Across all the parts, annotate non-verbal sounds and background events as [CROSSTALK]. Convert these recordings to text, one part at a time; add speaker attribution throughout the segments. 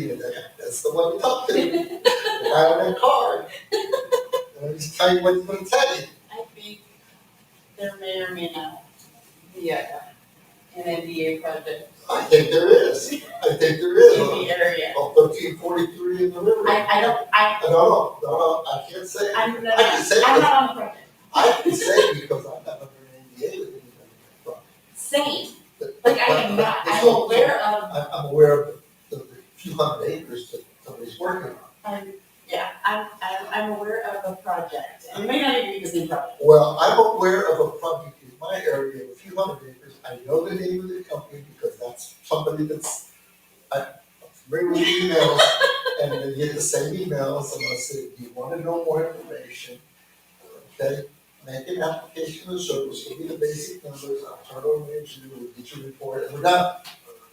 Speaker 1: you that, that's the one we talked to. The guy on that card. And I'm just tell you what he's gonna tell you.
Speaker 2: I think there may or may not be a, an NDA project
Speaker 1: I think there is. I think there
Speaker 2: in
Speaker 1: is.
Speaker 2: the area.
Speaker 1: On thirteen forty-three in the river.
Speaker 2: I, I don't, I,
Speaker 1: No, no, no, no, I can't say. it.
Speaker 2: I'm
Speaker 1: I can
Speaker 2: not,
Speaker 1: say,
Speaker 2: I'm
Speaker 1: it.
Speaker 2: not on the project.
Speaker 1: I can say it because I'm not under an NDA with anybody. But-
Speaker 2: Same,
Speaker 1: but-
Speaker 2: like I am not,
Speaker 1: but-
Speaker 2: I'm aware of,
Speaker 1: I, I'm aware of the the few hundred acres that somebody's working on.
Speaker 2: I'm, um, yeah, I'm, I'm, I'm aware of a project. It may not even be the same project.
Speaker 1: Well, I'm aware of a project in my area, of a few hundred acres, I know the name of the company because that's somebody that's, I, bring me emails, and they get the same emails, and I say, do you wanna know more information? Okay, make an application of service, give me the basic numbers, I'll turn it over to you, we'll get your report, and we're done.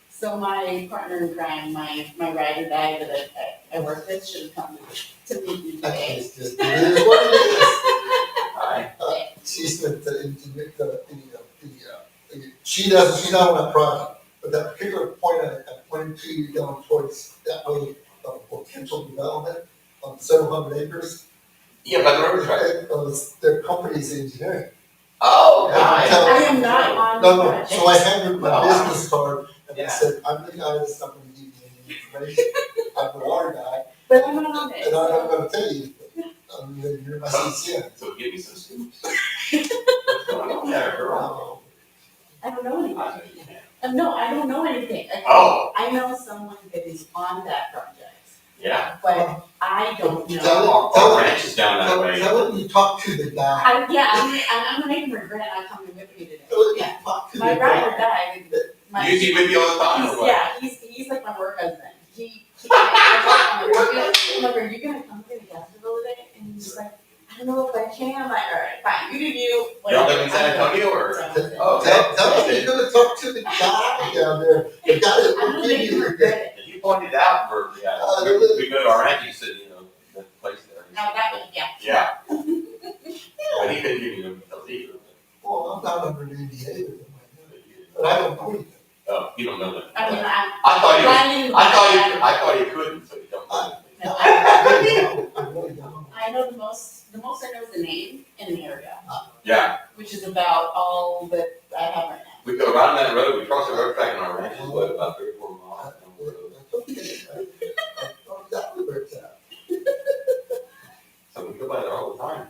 Speaker 2: So my partner in crime, my, my ride or die that I, I I work with should have come to meet me
Speaker 1: That
Speaker 2: today.
Speaker 1: is just, it is what it is. Uh, She's the, the, the, the, the, uh, she doesn't, she's not on that project, but that particular point I, I pointed to you down towards that way of potential development on several hundred acres.
Speaker 3: Yeah, by the river's right.
Speaker 1: It was their company's engineering.
Speaker 3: Oh,
Speaker 1: Yeah,
Speaker 3: nice.
Speaker 1: tell-
Speaker 2: I am not on
Speaker 1: No,
Speaker 2: the
Speaker 1: no,
Speaker 2: project.
Speaker 1: so I handed my
Speaker 3: No.
Speaker 1: business card and I
Speaker 3: Oh, Yeah.
Speaker 1: said, I'm the guy that's not gonna give you any information. I'm the water guy,
Speaker 2: But I'm not on it.
Speaker 1: and I'm not gonna tell you, anything, other than you're my CCN.
Speaker 3: So give me some [LAUGHS] Oh. scoops. What's going on there, girl?
Speaker 1: Um,
Speaker 2: I don't know anything.
Speaker 3: I understand.
Speaker 2: Uh, No, I don't know anything. I-
Speaker 3: Oh,
Speaker 2: I know someone that is on that project,
Speaker 3: yeah.
Speaker 2: but I don't
Speaker 1: Tell
Speaker 2: know.
Speaker 1: it.
Speaker 3: Our, our ranch is down that
Speaker 1: Tell,
Speaker 3: way.
Speaker 1: tell him you talked to the guy.
Speaker 2: I, yeah, I'm, I'm gonna make him regret not coming with me today.
Speaker 1: Tell him you
Speaker 2: Yeah,
Speaker 1: talked to the
Speaker 2: my
Speaker 1: guy.
Speaker 2: ride or die, my,
Speaker 3: Oh, You
Speaker 2: he's,
Speaker 3: keep with me all the time or what?
Speaker 2: yeah, he's, he's like my work husband. He, he, I told him, I'm like, are you gonna come to the festival today? And he's just like, I don't know if I can, I'm like, all right, fine, you do you,
Speaker 3: Y'all
Speaker 2: whatever.
Speaker 3: live in San Antonio or?
Speaker 2: So,
Speaker 3: Oh,
Speaker 1: Tell, tell him you're gonna talk to the guy down there, the guy that
Speaker 2: I'm
Speaker 1: will
Speaker 2: gonna
Speaker 1: give
Speaker 2: make him
Speaker 1: you the.
Speaker 2: regret it.
Speaker 3: You pointed out where,
Speaker 1: Uh,
Speaker 3: yeah,
Speaker 1: they
Speaker 3: we,
Speaker 1: live-
Speaker 3: we go to our ranch, you said, you know, the place there.
Speaker 2: Now, that one, yeah.
Speaker 3: Yeah.
Speaker 2: [LAUGHS]
Speaker 3: And he didn't give you the lead.
Speaker 1: Well, I'm not under an NDA with him, I know.
Speaker 3: but you didn't.
Speaker 1: but I don't believe it.
Speaker 3: Oh, you don't know
Speaker 2: I mean,
Speaker 3: that.
Speaker 2: I'm.
Speaker 3: I thought you,
Speaker 2: I knew-
Speaker 3: I thought you, I thought you couldn't, so you don't. know.
Speaker 2: No,
Speaker 1: I
Speaker 2: I-
Speaker 1: really don't, I really don't.
Speaker 2: I know the most, the most I know is the name and an area,
Speaker 3: Yeah,
Speaker 2: which is about all that I have right now.
Speaker 3: we go around that road, we cross the road track and our ranch is what, about three, or four miles down the road.
Speaker 1: That's okay, right? I thought that was where it's at.
Speaker 3: So we go by there all the time.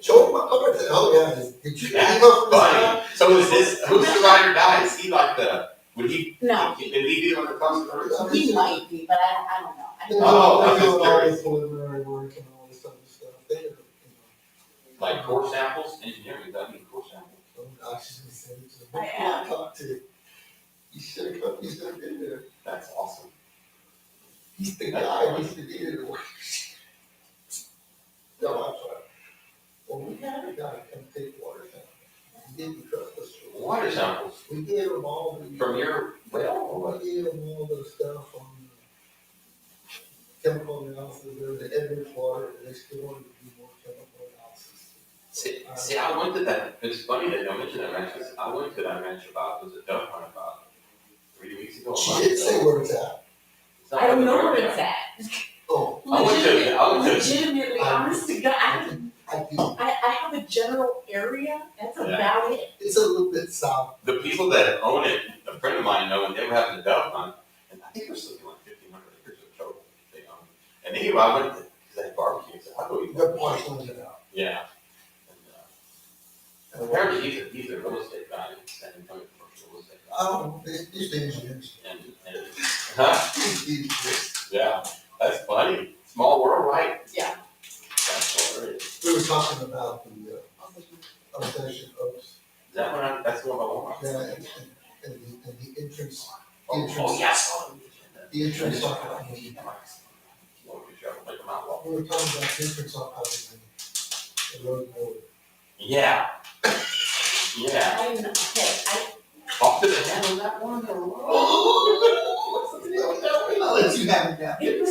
Speaker 1: Show him my card, say, oh yeah, is- did you?
Speaker 3: That's Funny. So is this, who's the ride or die? Is he like the, would he?
Speaker 2: No,
Speaker 3: Did he be on the cross the road?
Speaker 2: he might be, but I, I don't know. I
Speaker 1: They
Speaker 2: don't
Speaker 1: do
Speaker 2: know.
Speaker 3: Oh,
Speaker 1: all,
Speaker 3: I'm
Speaker 1: they do
Speaker 3: just
Speaker 1: all
Speaker 3: curious.
Speaker 1: this preliminary work and all this other stuff, they, you know.
Speaker 3: Like core samples, engineering, does that mean core samples?
Speaker 1: Oh, gosh, you should've said it to
Speaker 2: I
Speaker 1: me.
Speaker 2: am.
Speaker 1: Talk to you. You should've come, you should've been there.
Speaker 3: That's awesome.
Speaker 1: He's the guy, he's the leader. No, I'm sorry. Well, we had a guy come take water samples. He didn't trust us. for
Speaker 3: Water samples
Speaker 1: We gave him all the.
Speaker 3: from your well or
Speaker 1: We
Speaker 3: what?
Speaker 1: gave him all the stuff on chemical analysis, there's the Edwards water, and they still wanted to do more chemical analysis.
Speaker 3: See, see, I went to that, it's funny that y'all mentioned that ranch, 'cause I went to that ranch about, was it duck hunt about three weeks ago? a
Speaker 1: She
Speaker 3: month
Speaker 1: did say
Speaker 3: ago.
Speaker 1: where it's at.
Speaker 3: It's not
Speaker 2: I don't
Speaker 3: like
Speaker 2: know
Speaker 3: the
Speaker 2: where
Speaker 3: road
Speaker 2: it's at.
Speaker 1: Oh,
Speaker 3: I went to- I went to-
Speaker 2: Legitimately, honest to
Speaker 1: I
Speaker 2: God,
Speaker 1: do, I do.
Speaker 2: I, I have a general area, that's
Speaker 3: Yeah.
Speaker 2: about it.
Speaker 1: It's a little bit south
Speaker 3: The people that own it, a friend of mine know, and they were having a duck hunt, and I think it was something like fifteen hundred acres of total they own. And anyway, I went to, they had barbecue, so I go eat
Speaker 1: Good
Speaker 3: that.
Speaker 1: point, Linda. now.
Speaker 3: Yeah. And, uh, Apparently, he's a, he's a real estate guy, in San Antonio, commercial real estate guy.
Speaker 1: I don't, um, these, these engineers,
Speaker 3: And, and, huh,
Speaker 1: these engineers,
Speaker 3: yeah, that's funny. Small world, right?
Speaker 2: Yeah.
Speaker 3: That's hilarious. Is
Speaker 1: we were talking about the, uh, obsession of,
Speaker 3: that one, I- that's the one I want?
Speaker 1: yeah, and, and, and the, and the entrance,
Speaker 3: Oh, oh, yes. Oh, yeah.
Speaker 1: the entrance off of, we
Speaker 3: Well, good job, like a mouth walk.
Speaker 1: were talking about the entrance off of the, the road, nowhere.
Speaker 3: Yeah. [COUGHS] Yeah.
Speaker 2: I'm, okay, I,
Speaker 3: Off to the head on that one, or what?
Speaker 1: I'll let you have it now.
Speaker 3: Get